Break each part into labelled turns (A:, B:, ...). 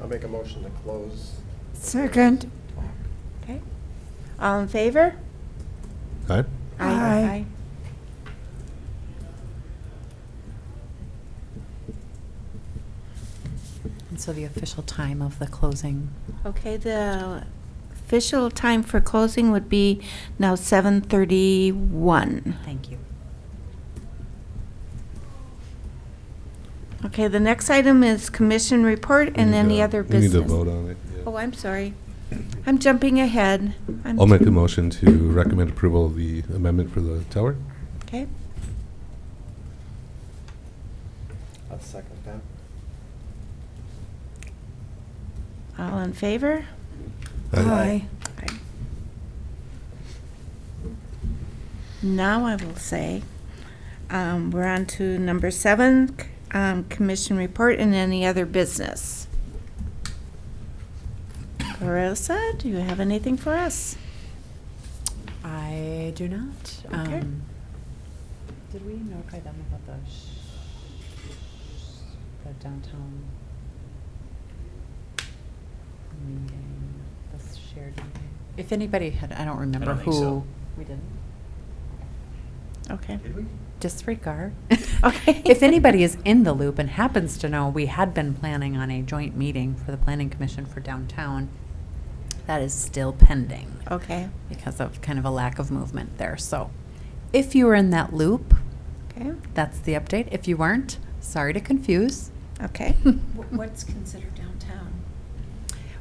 A: I'll make a motion to close.
B: Second.
C: Okay. All in favor?
D: Aye.
B: Aye.
E: And so the official time of the closing.
C: Okay, the official time for closing would be now 7:31.
E: Thank you.
C: Okay, the next item is commission report
D: We
C: and
D: need
C: any
D: to- uh,
C: other
D: We need
C: business.
D: to vote on it. yeah.
C: Oh, I'm sorry. I'm jumping ahead. I'm-
D: I'll make a motion to recommend approval of the amendment for the tower.
C: Okay,
A: I'll second that.
C: all in favor?
B: Aye.
C: Aye. Now I will say, um, we're on to number seven, c- um, commission report and any other business. Carissa, do you have anything for us?
E: I do not.
C: Okay.
E: Um, Did we notify them about the, sh- the downtown meeting, the shared meeting? If anybody had, I don't remember
F: think so.
E: who. We didn't?
C: Okay.
F: Did we?
E: Disregard.
C: Okay.
E: If anybody is in the loop and happens to know, we had been planning on a joint meeting for the planning commission for downtown. That is still pending
C: Okay,
E: because of kind of a lack of movement there. So if you were in that loop,
C: okay,
E: that's the update. If you weren't, sorry to confuse.
C: okay.
G: Wh- What's considered downtown?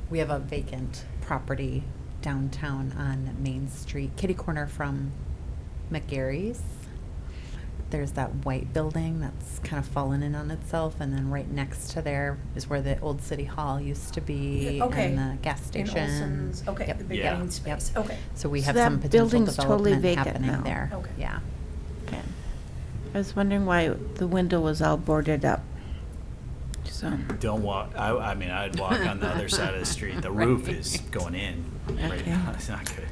E: We have a vacant property downtown on Main Street, kitty corner from McGarry's. There's that white building that's kind of fallen in on itself, and then right next to there is where the old city hall used to be,
G: Yeah, okay.
E: and the gas
G: In
E: station.
G: Olson's, okay,
E: Yep.
G: the
F: Yeah.
G: beginning
E: Yep.
G: space, okay.
E: So we
C: So
E: have
C: that
E: some potential
C: building's totally
E: development
C: vacant now.
E: happening there.
G: Okay.
E: Yeah.
C: Okay. I was wondering why the window was all boarded up. So,
F: Don't walk, I, I mean, I'd walk on the other side of the street. The roof is going in right
C: Okay.
F: now. It's not good.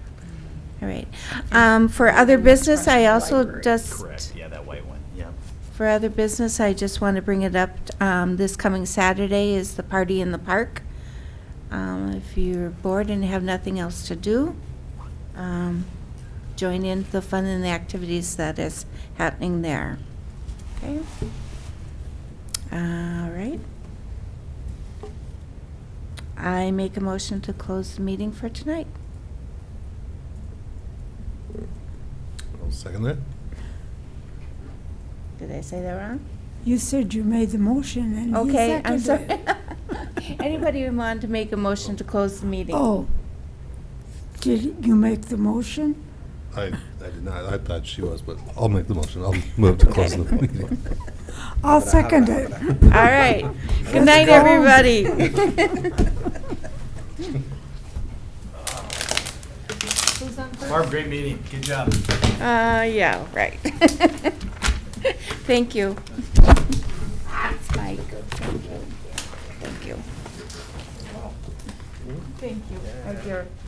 C: all right. Um, for other business, I also
G: Library.
C: just.
F: Correct, yeah, that white one, yeah.
C: For other business, I just want to bring it up, um, this coming Saturday is the party in the park. Um, if you're bored and have nothing else to do, um, join in the fun and the activities that is happening there. Okay? All right. I make a motion to close the meeting for tonight.
D: I'll second that.
C: Did I say that wrong?
B: You said you made the motion and he
C: Okay, I'm sorry.
B: seconded it.
C: Anybody who want to make a motion to close the meeting?
B: Oh. Did you make the motion?
D: I, I did not, I thought she was, but I'll make the motion. I'll move to close the meeting.
B: I'll second it.
C: All right. Good night, everybody.
F: Barb, great meeting. Good job.
C: Uh, yeah, right. Thank you. That's Mike. Thank you. Thank you. Thank you.